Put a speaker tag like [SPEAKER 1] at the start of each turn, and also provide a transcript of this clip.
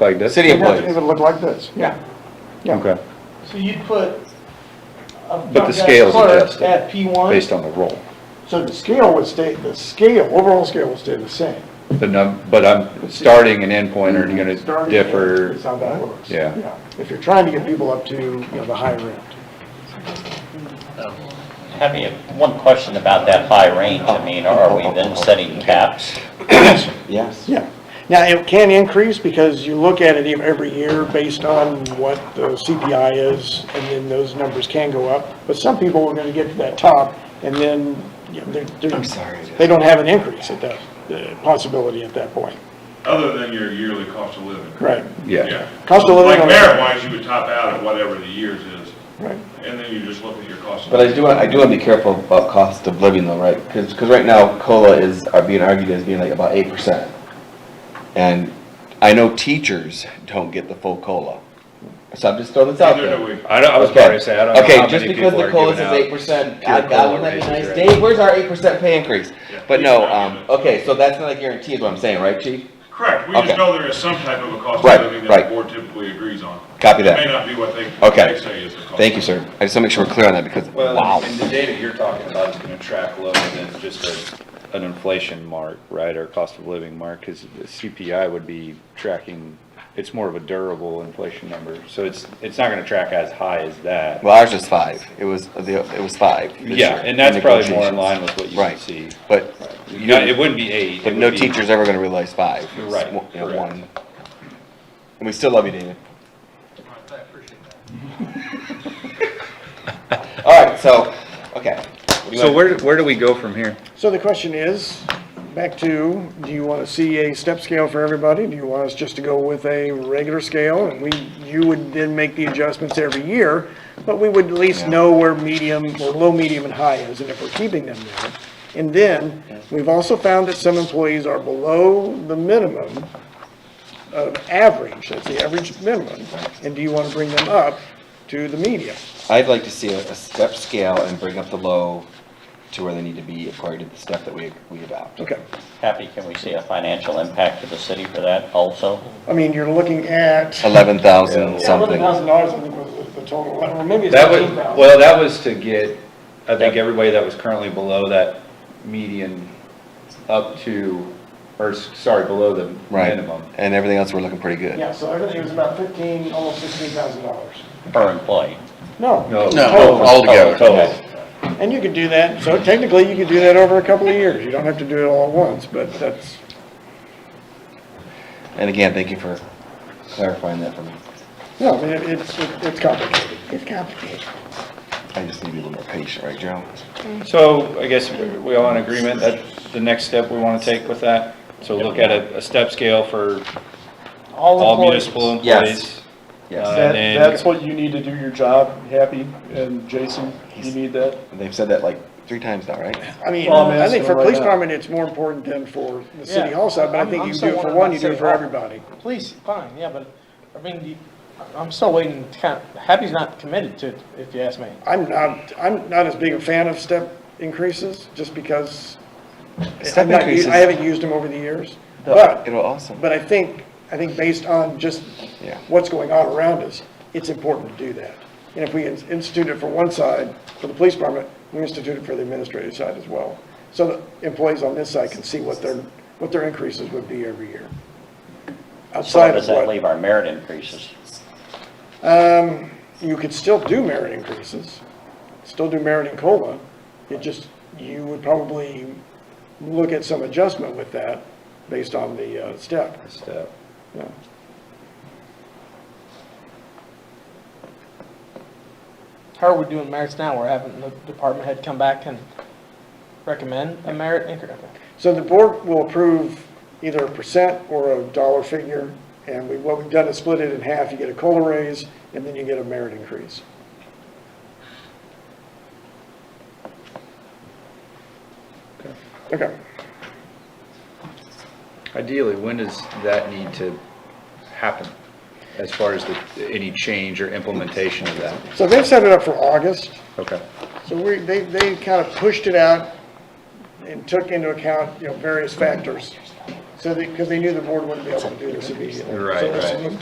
[SPEAKER 1] like this?
[SPEAKER 2] City of
[SPEAKER 3] It doesn't
[SPEAKER 2] Blaze.
[SPEAKER 3] even look like this, yeah. Yeah,
[SPEAKER 1] Okay,
[SPEAKER 4] So you'd put a front
[SPEAKER 1] But the
[SPEAKER 4] desk
[SPEAKER 1] scale's
[SPEAKER 4] clerk
[SPEAKER 1] adjusted
[SPEAKER 4] At P one?
[SPEAKER 1] based on the roll.
[SPEAKER 3] so the scale would stay, the scale, overall scale would stay the same.
[SPEAKER 1] The num, but I'm, starting and end point are gonna
[SPEAKER 3] Starting
[SPEAKER 1] differ.
[SPEAKER 3] Is how that works.
[SPEAKER 1] Yeah.
[SPEAKER 3] If you're trying to get people up to, you know, the higher end.
[SPEAKER 5] Having one question about that high range, I mean, are we then setting caps?
[SPEAKER 2] Yes.
[SPEAKER 3] Yeah. Now, it can increase because you look at it ev- every year based on what the CPI is, and then those numbers can go up. But some people are gonna get to that top, and then, you know, they're, they're.
[SPEAKER 2] I'm sorry.
[SPEAKER 3] They don't have an increase at that, uh, possibility at that point.
[SPEAKER 6] Other than your yearly cost of living.
[SPEAKER 3] Right,
[SPEAKER 1] Yeah,
[SPEAKER 3] Cost of living-
[SPEAKER 6] Like merit-wise, you would top out at whatever the years is,
[SPEAKER 3] right.
[SPEAKER 6] and then you just look at your cost of
[SPEAKER 2] But I
[SPEAKER 6] living.
[SPEAKER 2] do, want- I do want to be careful about cost of living though, right? Because, right now COLA is, are being argued as being like about eight percent. And I know teachers don't get the full COLA. So I'm just throwing this out
[SPEAKER 6] Neither
[SPEAKER 2] there.
[SPEAKER 6] do we.
[SPEAKER 1] I, don't- I was
[SPEAKER 2] Okay.
[SPEAKER 1] probably saying, I don't know how
[SPEAKER 2] Okay, just
[SPEAKER 1] many
[SPEAKER 2] because
[SPEAKER 1] people
[SPEAKER 2] the
[SPEAKER 1] are
[SPEAKER 2] COLA
[SPEAKER 1] giving
[SPEAKER 2] says
[SPEAKER 1] out.
[SPEAKER 2] eight percent,
[SPEAKER 1] pure
[SPEAKER 2] I, God,
[SPEAKER 1] COLA
[SPEAKER 2] wouldn't that be
[SPEAKER 1] raises
[SPEAKER 2] nice?
[SPEAKER 1] right
[SPEAKER 2] Dave, where's our eight percent pay increase?
[SPEAKER 6] Yeah.
[SPEAKER 2] But no, um, okay, so that's not guaranteed, what I'm saying, right, chief?
[SPEAKER 6] Correct, we just
[SPEAKER 2] Okay.
[SPEAKER 6] know there is some type of a cost
[SPEAKER 2] Right,
[SPEAKER 6] of living that
[SPEAKER 2] right.
[SPEAKER 6] the board typically agrees on.
[SPEAKER 2] Copy
[SPEAKER 6] It may
[SPEAKER 2] that.
[SPEAKER 6] not be what they,
[SPEAKER 2] Okay.
[SPEAKER 6] they say is the cost.
[SPEAKER 2] Thank you, sir. I just want to make sure we're clear on that because, wow.
[SPEAKER 7] Well, and the data you're talking about is gonna track lower than just a,
[SPEAKER 1] an inflation mark, right, or cost of living mark, because the CPI would be tracking, it's more of a durable inflation number, so it's, it's not gonna track as high as that.
[SPEAKER 2] Well, ours was five. It was, the it was five. this
[SPEAKER 1] Yeah,
[SPEAKER 2] year
[SPEAKER 1] and that's
[SPEAKER 2] in
[SPEAKER 1] probably more in
[SPEAKER 2] negotiations.
[SPEAKER 1] line with what you would
[SPEAKER 2] Right.
[SPEAKER 1] see.
[SPEAKER 2] But,
[SPEAKER 1] You know, it wouldn't be eight.
[SPEAKER 2] but
[SPEAKER 1] it
[SPEAKER 2] no
[SPEAKER 1] would be-
[SPEAKER 2] teacher's ever gonna realize five. It's
[SPEAKER 1] Right,
[SPEAKER 2] one- you know,
[SPEAKER 1] correct.
[SPEAKER 2] one. And we still love you, David. All right, so, okay. What do you
[SPEAKER 1] So
[SPEAKER 2] want-
[SPEAKER 1] where, where do we go from here?
[SPEAKER 3] So the question is, back to, do you want to see a step scale for everybody? Do you want us just to go with a regular scale? And we, you would then make the adjustments every year, but we would at least know where medium, or low, medium, and high is, and if we're keeping them there. And then, we've also found that some employees are below the minimum of average, that's the average minimum. And do you want to bring them up to the median?
[SPEAKER 2] I'd like to see a, a step scale and bring up the low to where they need to be according to the step that we, we adopt.
[SPEAKER 3] Okay.
[SPEAKER 5] Happy, can we see a financial impact to the city for that also?
[SPEAKER 3] I mean, you're looking at.
[SPEAKER 2] Eleven thousand something.
[SPEAKER 3] Eleven thousand dollars, I think, was the- the total, or maybe it's
[SPEAKER 1] That was,
[SPEAKER 3] thirteen thousand.
[SPEAKER 1] well, that was to get, I think, everybody that was currently below that median up to, or, s- sorry, below the
[SPEAKER 2] Right.
[SPEAKER 1] minimum.
[SPEAKER 2] And everything else, we're looking pretty good.
[SPEAKER 3] Yeah, so everything was about fifteen, almost sixteen thousand dollars.
[SPEAKER 5] Per employee?
[SPEAKER 3] No, Oh,
[SPEAKER 1] No.
[SPEAKER 2] No, altogether.
[SPEAKER 1] Total.
[SPEAKER 3] and you could do that, so technically you could do that over a couple of years, you don't have to do it all at once, but that's,
[SPEAKER 2] And again, thank you for clarifying that for me.
[SPEAKER 3] no, I mean, it- it's, it- it's complicated. It's complicated.
[SPEAKER 2] I just need to be a little more patient, right, Gerald?
[SPEAKER 1] So I guess we all in agreement that the next step we want to take with that? So look at a, a step scale for all municipal employees.
[SPEAKER 2] Yes.
[SPEAKER 1] Uh,
[SPEAKER 2] Yes,
[SPEAKER 8] That,
[SPEAKER 1] and-
[SPEAKER 8] that's what you need to do your job, happy, and Jason, you need that.
[SPEAKER 2] they've said that like three times now, right?
[SPEAKER 3] I mean,
[SPEAKER 8] Well, I'm
[SPEAKER 3] I think
[SPEAKER 8] asking
[SPEAKER 3] for
[SPEAKER 8] right
[SPEAKER 3] police
[SPEAKER 8] now.
[SPEAKER 3] department, it's more important than for the city
[SPEAKER 4] Yeah.
[SPEAKER 3] hall side, but I
[SPEAKER 4] I'm-
[SPEAKER 3] think
[SPEAKER 4] I'm
[SPEAKER 3] you do
[SPEAKER 4] still
[SPEAKER 3] it for
[SPEAKER 4] wondering
[SPEAKER 3] one,
[SPEAKER 4] about
[SPEAKER 3] you do it
[SPEAKER 4] city
[SPEAKER 3] for
[SPEAKER 4] hall.
[SPEAKER 3] everybody.
[SPEAKER 4] Please, fine, yeah, but, I mean, you- I'm still waiting, to kind of, Happy's not committed to it, if you ask me.
[SPEAKER 3] I'm not, I'm not as big a fan of step increases, just because
[SPEAKER 2] Step
[SPEAKER 3] I'm not, u-
[SPEAKER 2] increases.
[SPEAKER 3] I haven't used them over the years, but.
[SPEAKER 2] It'll also,
[SPEAKER 3] But I think, I think based on just
[SPEAKER 2] Yeah.
[SPEAKER 3] what's going on around us, it's important to do that. And if we in- institute it for one side, for the police department, we institute it for the administrative side as well. So the employees on this side can see what their, what their increases would be every year.
[SPEAKER 5] So where
[SPEAKER 3] Outside
[SPEAKER 5] does
[SPEAKER 3] of
[SPEAKER 5] that
[SPEAKER 3] what,
[SPEAKER 5] leave our merit increases?
[SPEAKER 3] you could still do merit increases, still do merit and COLA. It just, you would probably look at some adjustment with that based on the uh, step.
[SPEAKER 1] Step.
[SPEAKER 3] Yeah.
[SPEAKER 4] How are we doing merits now? We're having the department head come back and recommend a merit increase.
[SPEAKER 3] So the board will approve either a percent or a dollar figure, and we, what we've done is split it in half, you get a COLA raise, and then you get a merit increase. Okay,
[SPEAKER 1] Ideally, when does that need to happen as far as the, any change or implementation of that?
[SPEAKER 3] so they've set it up for August,
[SPEAKER 1] Okay.
[SPEAKER 3] so we, they, they kind of pushed it out and took into account, you know, various factors. So they, because they knew the board wouldn't be able to do this immediately.
[SPEAKER 1] Right,
[SPEAKER 3] So this
[SPEAKER 1] right.